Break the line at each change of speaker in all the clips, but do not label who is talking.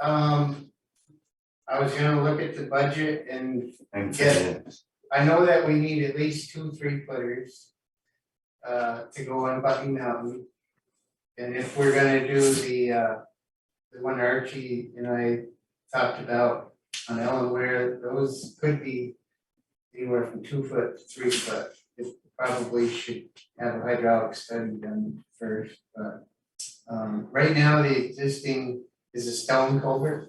Um, I was gonna look at the budget and
And
Yeah. I know that we need at least two three footers. Uh, to go on Bucky Mountain. And if we're gonna do the uh, the one Archie and I talked about on Ellen Ware, those could be. Anywhere from two foot to three foot, it probably should have a hydraulic study done first, but. Um, right now, the existing is a stone culvert.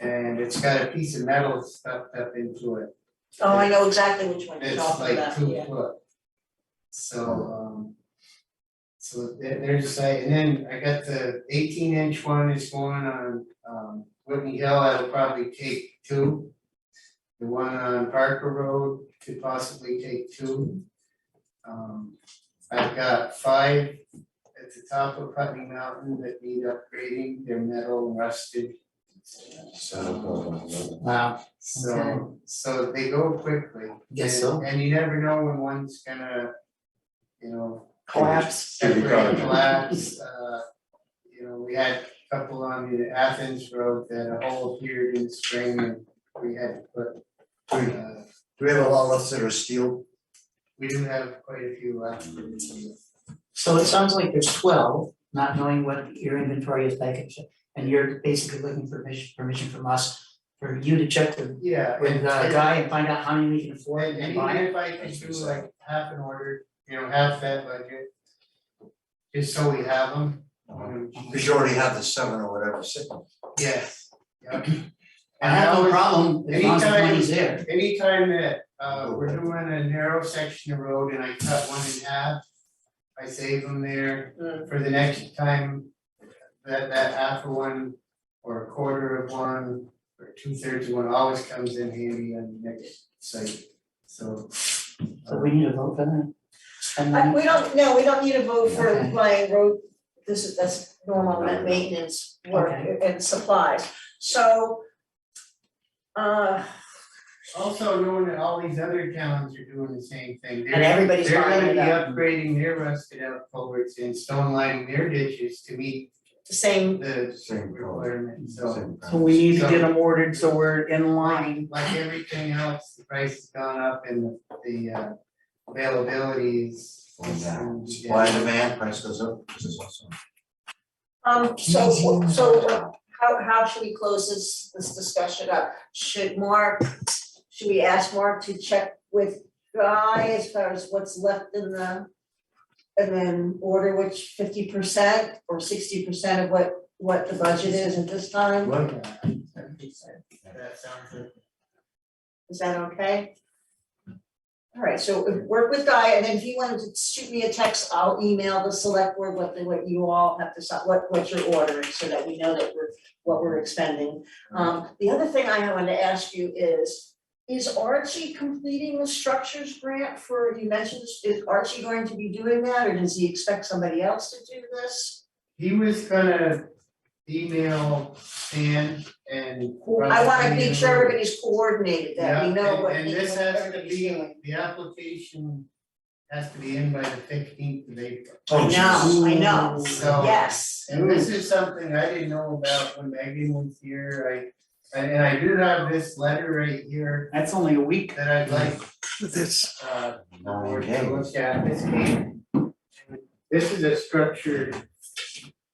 And it's got a piece of metal stuffed up into it.
Oh, I know exactly which one you're
It's
talking
like
about,
two
yeah.
foot. So, um. So there, there's a, and then I got the eighteen inch one is going on, um, Whitney Hill, that'll probably take two. The one on Parker Road could possibly take two. Um, I've got five at the top of Putney Mountain that need upgrading, they're metal and rusted.
Wow, Okay.
So, so they go quickly. and-
Guess so.
And you never know when one's gonna, you know,
collapse.
Should be
separate,
covered.
collapse, uh, you know, we had a couple on the Athens road that a hole appeared in the spring and we had to put, uh,
Do we have a lot left that are steel?
we do have quite a few left.
So it sounds like there's twelve, not knowing what your inventory is like, and shit, and you're basically looking for permission, permission from us, for you to check the,
Yeah.
with the
and-
uh, guy and find out how many we can afford
And
and
and
buy.
even if I could do like half an order, you know, half that budget, just so we have them.
Uh-huh.
Because you already have the seven or whatever sitting.
Yes, yeah.
I have no problem, as long as the
anytime-
money's there,
Anytime that uh we're doing a narrow section of road and I cut one in half, I save them there for the next time. That that half of one or a quarter of one or two thirds of one always comes in handy on the next site, so. uh,
so we need a vote for that. And
Uh,
then,
we don't, no, we don't need a vote for
Okay.
my road, this is, that's normal ma- maintenance work
Okay.
and supplies, so. Uh,
Also knowing that all these other towns are doing the same thing,
and
they're
everybody's
they're
lining
gonna
it
be
up,
upgrading their rusted out culverts and stone lining their ditches to meet
the same,
the
Same color.
requirement, so.
same
So we need to
So-
get them ordered, so we're in line.
Like everything else, the price has gone up and the uh, availability is.
color. And, uh,
is-
Supply and demand, price goes up, this is awesome.
um, so, wh- so what- how, how should we close this, this discussion up? Should Mark, should we ask Mark to check with Guy as far as what's left in the. And then order which fifty percent or sixty percent of what, what the budget is at this time?
That sounds like.
Is that okay? All right, so if- work with Guy, and then if you wanted to shoot me a text, I'll email the select board what the, what you all have to, decide- what, what you're ordering, so that we know that we're, what we're expending. Um, the other thing I wanted to ask you is, is Archie completing the structures grant for, you mentioned, this- is Archie going to be doing that, or does he expect somebody else to do this?
He was gonna email Stan and.
I wanna make sure everybody's coordinated, that we
Yeah,
know
and-
what
And
each-
this has to
everybody's doing.
be, the application has to be in by the fifteenth of April.
Oh,
No, I know,
So-
yes.
Mm-hmm.
And this is something I didn't know about when Megan was here, I, and and I do have this letter right here
That's only a week.
that I'd like
This.
uh
Mm-hmm. Nine
board to
K.
look at, this came. This is a structured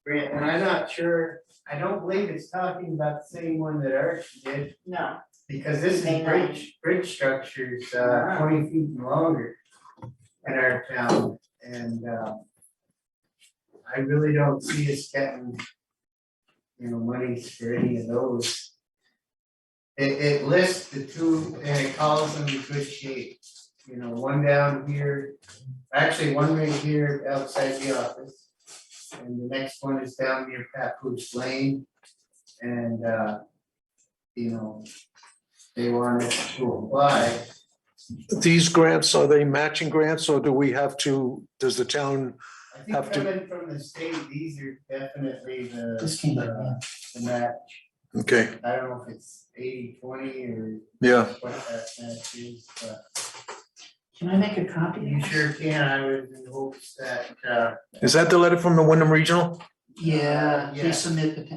grant, and I'm not sure, I don't believe it's talking about the same one that Archie did,
No,
because this is
Hang on.
bridge, bridge structures, uh twenty feet and longer in our town, and uh I really don't see us getting, you know, money for any of those. It, it lists the two and it calls them in good shape, you know, one down here, actually one right here outside the office. And the next one is down near Papoose Lane. And, uh, you know, they want us to apply.
These grants, are they matching grants or do we have to, does the town,
I think
Have to-
coming from the state, these are definitely the,
this came back,
uh, the match.
okay,
I don't know if it's eighty, twenty or
yeah,
what that match is, but
can I make a copy?
you sure can, I would in hopes that, uh,
is that the letter from the Wyndham Regional?
Yeah,
Yeah.
please submit the